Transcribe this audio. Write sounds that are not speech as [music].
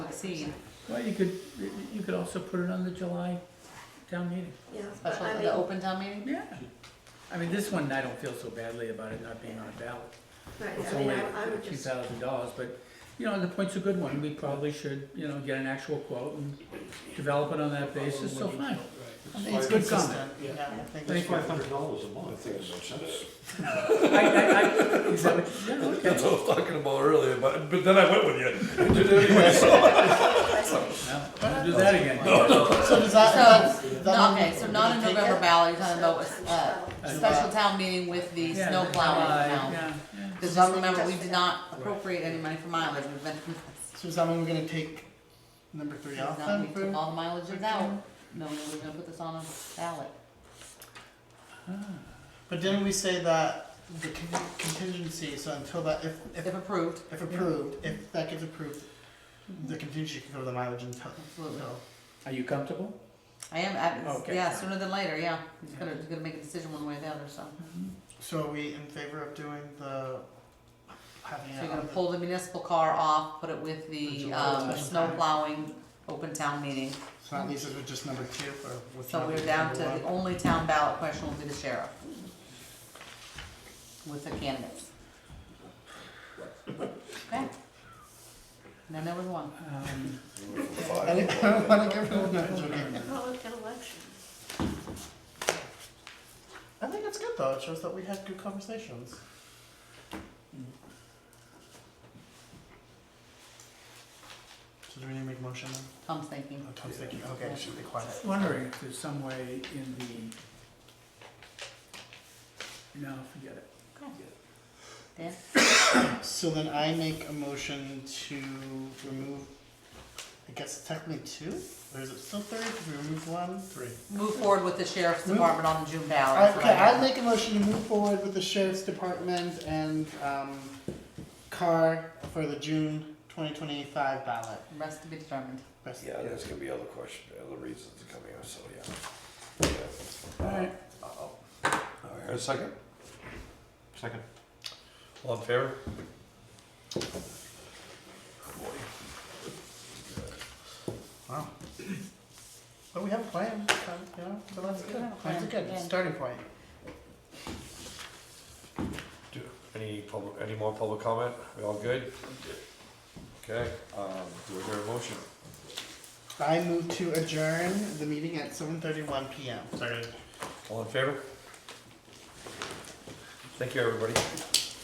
seen. Well, you could, you could also put it on the July town meeting. Yeah, but Special, I the mean, open town meeting? Yeah. I mean, this one, I don't feel so badly about it not being on a ballot. right, It's I mean, only I I a would few just, thousand dollars, but, you know, the point's a good one. We probably should, you know, get an actual quote and develop it on that basis, so fine. I think it's good comment. Yeah, I think Thank you. Five hundred dollars a month. I think it makes sense. I, I, I, is that what- yeah, okay. [laughs] That's what I was talking about earlier, but, but then I went with [laughs] you. You did anyway, so- No, don't do that again. So does that, So, that no, on- okay, so not a does it take November it? ballot, you're talking about a, a special town meeting with the Yeah, snow the plowing July, Uh, town. yeah, yeah. Cause just remember, we did not appropriate any money for mileage, we've been, So does that mean we're gonna take number three off we then? took for- all the mileages out, no, we were gonna put this on a ballot. But didn't we say that the con- contingency, so until that, if, If if, approved, if approved, if that gets approved, Mm-hmm. the contingency can cover the mileage until, Absolutely. until. Are you comfortable? I am, I, Okay. yeah, sooner than later, yeah, he's Yeah. gonna, he's gonna make a decision one way or the other, so. Mm-hmm. So are we in favor of doing the, having So it you're gonna on the, pull the municipal car off, put it with the, July um, town. snow plowing, open town meeting. so at least it was just number two or what's So number we're down number to, the one? only town ballot question will be the sheriff. With the candidates. Okay? Now, number one. [laughs] Um, [laughs] I didn't, I don't wanna [laughs] give everyone that, it's okay. well, an election. I think it's good though, it shows that we had good conversations. Mm. So do we need to make a motion then? Tom's thinking. Oh, Tom's thinking, okay, it should be quiet. Wondering if there's some way in the, no, forget it. Dan? So then I make a motion to remove, I guess technically two, or is it still three, Did we remove one? Three. Move forward with the sheriff's Move- department on the June ballot. Okay, Hmm? I make a motion to move forward with the sheriff's department and, um, car for the June twenty twenty-five ballot. Rest to be determined. Rest- Yeah, there's gonna be other question, other reasons to come here, so, yeah. Yeah. Alright. Uh, All right, a second? Second. All in favor? Wow. But we have a plan, um, you know, so that's We good. have a That's a plan, good yeah. starting point. Do- Any public, any more public comment? We all good? Okay, um, do we hear a motion? I move to adjourn the meeting at seven thirty-one PM. Sorry. All in favor? Thank you, everybody.